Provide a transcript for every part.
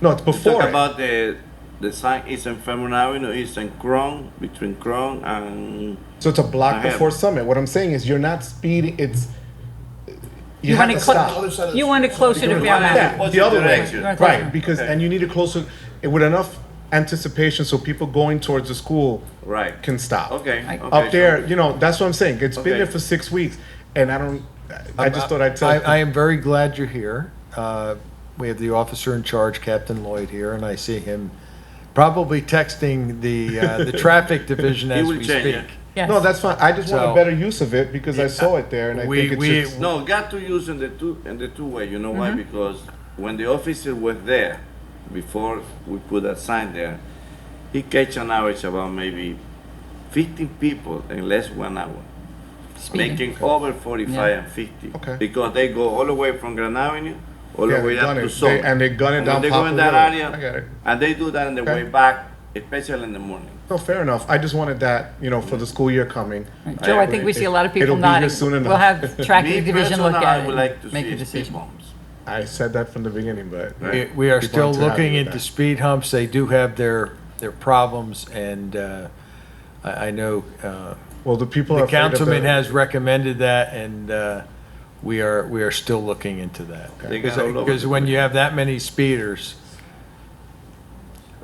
No, it's before Talk it. about the the sign Eastern Fairmont Avenue, Eastern Crown, between Crown and So it's a block I have- before Summit. What I'm saying is you're not speeding. It's you, have want to it clo- stop. You want it closer to Fairmount. Yeah, the other Direction. way, Right, right? right. Because and you need it closer with enough anticipation so people going towards the school right. can stop. okay. I- okay, Up sure. there, you know, that's what I'm saying. It's been Okay. there for six weeks, and I don't. I I just thought I'd tell. I, I am very glad you're here. Uh, We have the officer in charge, Captain Lloyd, here, and I see him probably texting the, uh, the traffic division He as will we change speak. it. Yes. no, that's fine. I just want a So- better use of it because I saw it there, and I We- think we- it's. No, got to use in the two in the two way. You know Mm-hmm. why? Because when the officer was there, before we put that sign there, he catch an average about maybe 15 people in less one hour, making over 45 Yeah. and 50. Okay. Because they go all the way from Grand Avenue, all Yeah, the way they up gun to it. Soho. They- and they gun it And down They go in Poplar that Road. area, I get it. and they do that on the Okay. way back, especially in the morning. No, fair enough. I just wanted that, you know, for the school year coming. Joe, I think we see a lot of people It'll be here nodding. soon enough. We'll have Me traffic division personally, look I at would it like to and make see a speed decision. bumps. I said that from the beginning, but We- We are People still aren't too happy looking with into that. speed humps. They do have their, their problems, and uh, I, I know uh, well, the people are the afraid of councilman the- has recommended that, and uh, we are, we are still looking into that. They got all over Because the when you have that many speeders,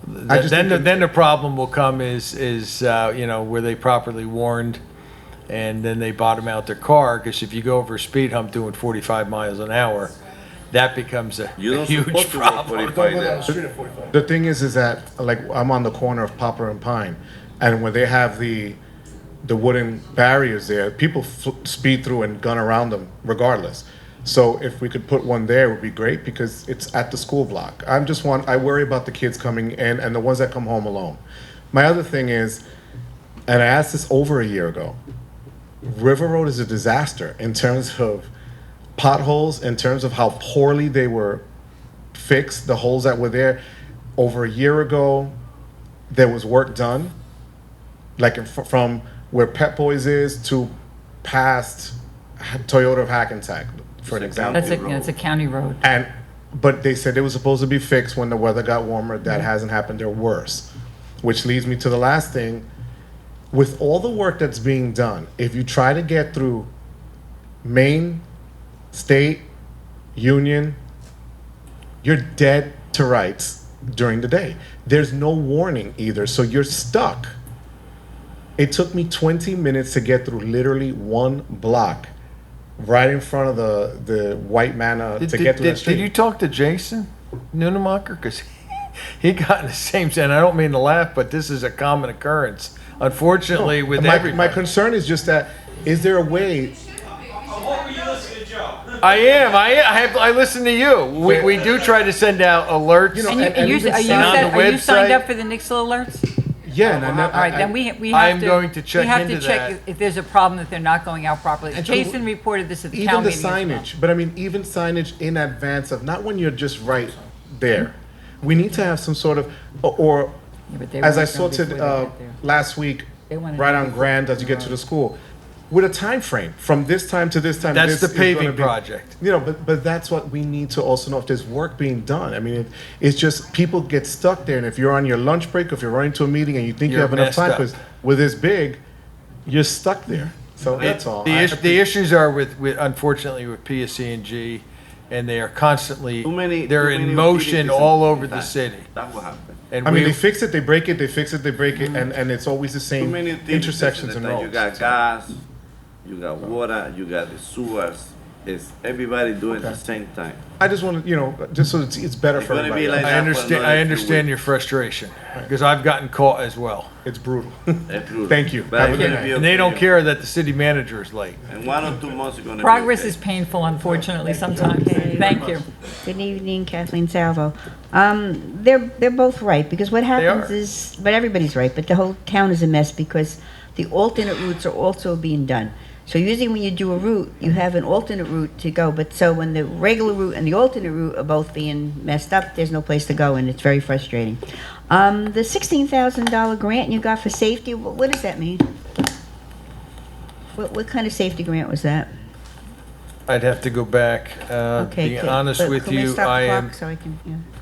I th- just then, think the- that- then the problem will come is, is, uh, you know, were they properly warned? And then they bottom out their car, because if you go over a speed hump doing 45 miles an hour, that becomes a You a don't huge support to go problem. 45 there. The thing is, is that like I'm on the corner of Poplar and Pine, and when they have the the wooden barriers there, people fl- speed through and gun around them regardless. So if we could put one there, it would be great because it's at the school block. I'm just one. I worry about the kids coming in and the ones that come home alone. My other thing is, and I asked this over a year ago. River Road is a disaster in terms of potholes, in terms of how poorly they were fixed, the holes that were there. Over a year ago, there was work done, like in fr- from where Pet Boys is to past Toyota of Hackensack, for an It's a example. That's a, Road. that's a county road. And but they said it was supposed to be fixed when the weather got warmer. That hasn't happened. They're worse, which leads me to the last thing. With all the work that's being done, if you try to get through Maine, State, Union, you're dead to rights during the day. There's no warning either, so you're stuck. It took me 20 minutes to get through literally one block, right in front of the the white manna Did- to did- get through did- that street. Did you talk to Jason Nunemacher? Because he got in the same, and I don't mean to laugh, but this is a common occurrence, unfortunately, with my, my everybody. concern is just that is there a way? I am, I, am- I have, I listen to you. We, we do try to send out alerts. You know, And you, and- are and you, even are you, sign- set- On the are you signed website. up for the Nixle alerts? Yeah, and I, never- All right, I- then we, we I have to. am going to check we have to into check that. If there's a problem, that they're not going out properly. And so Jason reported this at the even town the meeting. as well. signage. But I mean, even signage in advance of not when you're just right there. We need to have some sort of or. or Yeah, but they as I weren't done sorted before they uh, got there. last week, They wanted right to on be- Grand as you get to the school, with a time frame from this time to this time. this That's the is gonna paving be- project. You know, but but that's what we need to also know if there's work being done. I mean, it, it's just people get stuck there, and if you're on your lunch break, if you're running to a meeting, and you think you You're have enough messed time up. because with this big, you're stuck there. So that's all. The, I- is- the issues are with, with, unfortunately, with PSC&G, and they are constantly, Too many. they're too in many motion utilities all in- over the that- city. That will happen. And I mean, we- they fix it, they break it, they fix it, they break it, and, and it's always the Mm. Too same many utilities intersections in and the town. You got roads. gas, you got water, you got the sewers. It's everybody doing it at the same time. I just want to, you know, just so it's, it's better It's for gonna be everybody. like- I that for understand, another I few understand weeks. your frustration, because I've gotten caught as well. it's brutal. Approved. Thank you. But Have it's a good gonna night. be And they don't okay. care that the city manager is late. In one or two months, you're gonna. be Progress okay. is painful, unfortunately, sometimes. Thank you. Good evening, Kathleen Salvo. Um, they're they're both right because what happens are. is, but everybody's right. But the whole town is a mess because the alternate routes are also being done. So usually when you do a route, you have an alternate route to go. But so when the regular route and the alternate route are both being messed up, there's no place to go, and it's very frustrating. Um, the sixteen thousand dollar grant you got for safety, what, what does that mean? What what kind of safety grant was that? I'd have to go back. Uh, Okay, Being can- honest but with can we you, stop the I clock am, So I can, yeah.